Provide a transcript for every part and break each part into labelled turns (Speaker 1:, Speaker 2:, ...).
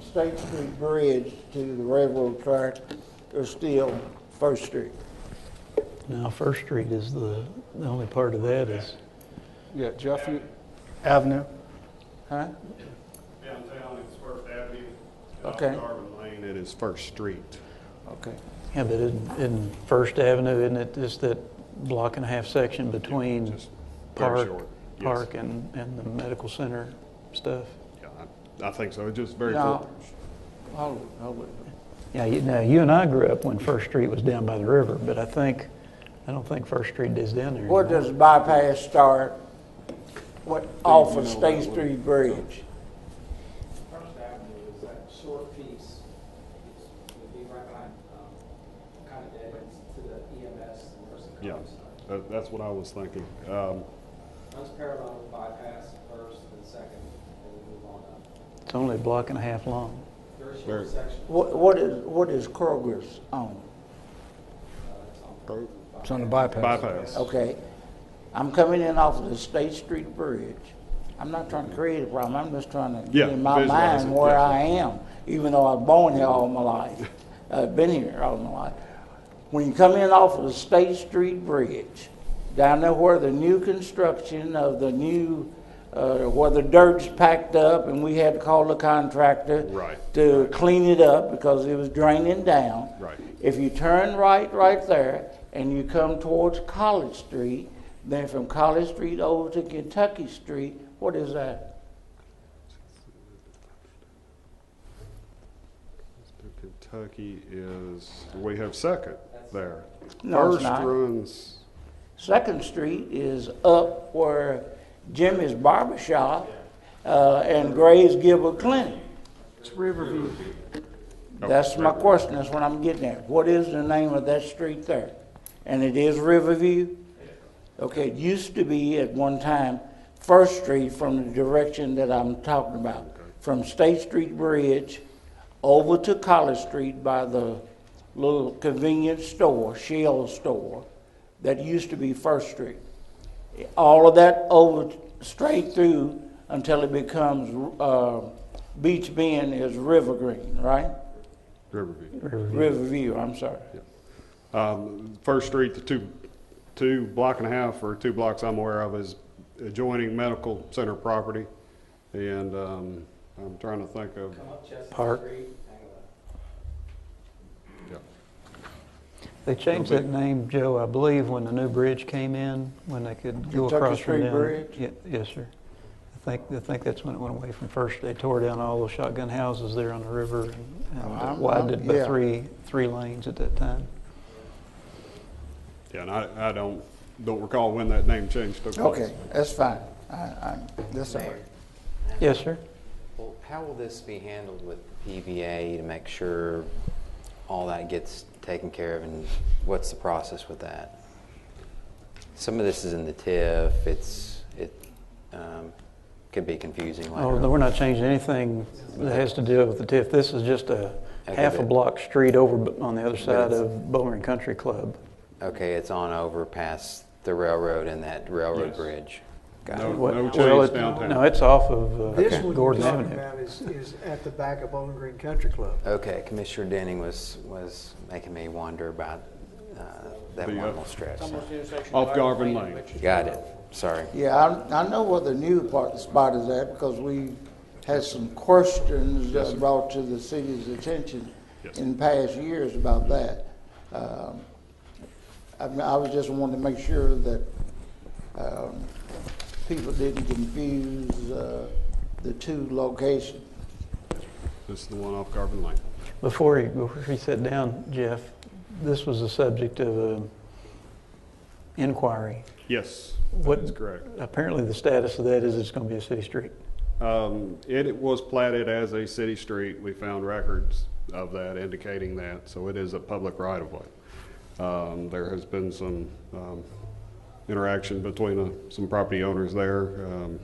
Speaker 1: State Street Bridge to the railroad track is still First Street.
Speaker 2: Now, First Street is the, the only part of that is,
Speaker 3: Yeah, Jeff, you,
Speaker 4: Avenue.
Speaker 3: huh?
Speaker 5: Downtown, it's First Avenue. and off
Speaker 3: Okay.
Speaker 5: Garvin Lane, it is First Street.
Speaker 3: Okay.
Speaker 2: yeah, but in, in First Avenue, isn't it just that block and a half section between
Speaker 5: Just very
Speaker 2: Park,
Speaker 5: short, yes.
Speaker 2: Park and, and the medical center stuff?
Speaker 5: Yeah, I I think so, it's just very
Speaker 3: Yeah.
Speaker 5: short.
Speaker 3: I'll, I'll wait.
Speaker 2: Yeah, you, now, you and I grew up when First Street was down by the river, but I think, I don't think First Street is down there
Speaker 1: Where
Speaker 2: anymore.
Speaker 1: does bypass start? What, off of State Street Bridge?
Speaker 6: First Avenue is that short piece, it's, it'd be right behind, um, kind of dead ends to the EMS and Mercy
Speaker 5: Yeah,
Speaker 6: College side.
Speaker 5: that- that's what I was thinking. Um,
Speaker 6: Runs parallel with bypass first and second, and we move on up.
Speaker 2: It's only a block and a half long.
Speaker 6: Very
Speaker 5: Very-
Speaker 6: short section,
Speaker 1: What, what is, what is Kroger's on?
Speaker 6: uh,
Speaker 4: It's on the bypass.
Speaker 5: Bypass.
Speaker 1: Okay, I'm coming in off of the State Street Bridge. I'm not trying to create a problem, I'm just trying to get
Speaker 5: Yeah,
Speaker 1: in my
Speaker 5: visualize
Speaker 1: mind
Speaker 5: it,
Speaker 1: where
Speaker 5: yeah.
Speaker 1: I am, even though I've born here all my life, I've been here all my life. When you come in off of the State Street Bridge, down there where the new construction of the new, uh, where the dirt's packed up and we had to call the contractor
Speaker 5: Right.
Speaker 1: to clean it up because it was draining down.
Speaker 5: Right.
Speaker 1: If you turn right, right there, and you come towards College Street, then from College Street over to Kentucky Street, what is that?
Speaker 5: Kentucky is, we have Second there.
Speaker 1: No, it's
Speaker 5: First
Speaker 1: not.
Speaker 5: runs,
Speaker 1: Second Street is up where Jimmy's Barber Shop uh, and Gray's Gilbert Clinic.
Speaker 4: It's Riverview.
Speaker 5: Oh,
Speaker 1: That's my question, that's what I'm getting at. What is the name of that street there? And it is Riverview? Okay, it used to be at one time First Street from the direction that I'm talking about. From State Street Bridge over to College Street by the little convenience store, Shell store, that used to be First Street. All of that over, straight through until it becomes, uh, Beach Bend is River Green, right?
Speaker 5: Riverview.
Speaker 1: Riverview, I'm sorry.
Speaker 5: Um, First Street, the two, two block and a half or two blocks I'm aware of is adjoining medical center property. And um, I'm trying to think of,
Speaker 6: come up
Speaker 2: Park.
Speaker 6: Chestnut Street, hang a left.
Speaker 5: yeah.
Speaker 2: They changed that name, Joe, I believe, when the new bridge came in, when they could go
Speaker 1: Kentucky
Speaker 2: across from
Speaker 1: Street
Speaker 2: down.
Speaker 1: Bridge?
Speaker 2: Ye- Yes, sir. I think, I think that's when it went away from First. They tore down all those shotgun houses there on the river and-
Speaker 1: Oh, I'm- I'm-
Speaker 2: and widened it by
Speaker 1: yeah.
Speaker 2: three, three lanes at that time.
Speaker 5: Yeah, and I, I don't, don't recall when that name change took place.
Speaker 1: Okay, that's fine. I, I, that's all right.
Speaker 2: Yes, sir.
Speaker 7: Well, how will this be handled with PVA to make sure all that gets taken care of, and what's the process with that? Some of this is in the TIF. It's it um, could be confusing later.
Speaker 2: Oh, no, we're not changing anything that has to do with the TIF. This is just a
Speaker 7: Okay,
Speaker 2: half a
Speaker 7: but-
Speaker 2: block street over b- on the other side
Speaker 7: it's-
Speaker 2: of Bowling Country Club.
Speaker 7: Okay, it's on over past the railroad and that railroad
Speaker 5: Yes.
Speaker 7: bridge. Got
Speaker 5: No,
Speaker 7: it.
Speaker 2: What-
Speaker 5: no
Speaker 2: well,
Speaker 5: change
Speaker 2: it-
Speaker 5: downtown.
Speaker 2: No, it's off of
Speaker 8: This
Speaker 2: uh,
Speaker 8: one
Speaker 2: Gordon
Speaker 8: you're talking
Speaker 2: Avenue.
Speaker 8: about is, is at the back of Bowling Green Country Club.
Speaker 7: Okay, Commissioner Denning was was making me wonder about uh, that
Speaker 5: The,
Speaker 7: one
Speaker 5: uh,
Speaker 7: little stretch. so-
Speaker 5: Off Garvin Lane.
Speaker 7: Got it. Sorry.
Speaker 1: Yeah, I, I know where the new part, spot is at because we had some questions that brought to the city's attention
Speaker 5: Yes.
Speaker 1: in past years about that. Um, I mean, I was just wanting to make sure that, um, people didn't confuse, uh, the two locations.
Speaker 5: This is the one off Garvin Lane.
Speaker 2: Before he, before he sat down, Jeff, this was the subject of an inquiry.
Speaker 5: Yes,
Speaker 2: What-
Speaker 5: that is correct.
Speaker 2: Apparently, the status of that is it's going to be a city street.
Speaker 5: Um, it, it was platted as a city street. We found records of that indicating that, so it is a public right of way. Um, there has been some, um, interaction between, uh, some property owners there. Um,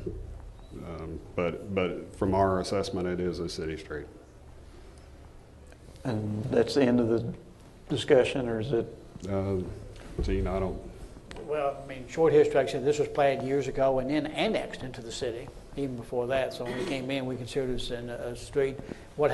Speaker 5: um, but, but from our assessment, it is a city street.
Speaker 2: And that's the end of the discussion, or is it,
Speaker 5: Uh, Gene, I don't,
Speaker 9: Well, I mean, short history, like I said, this was planned years ago and then annexed into the city, even before that. So when we came in, we considered this in a a street. What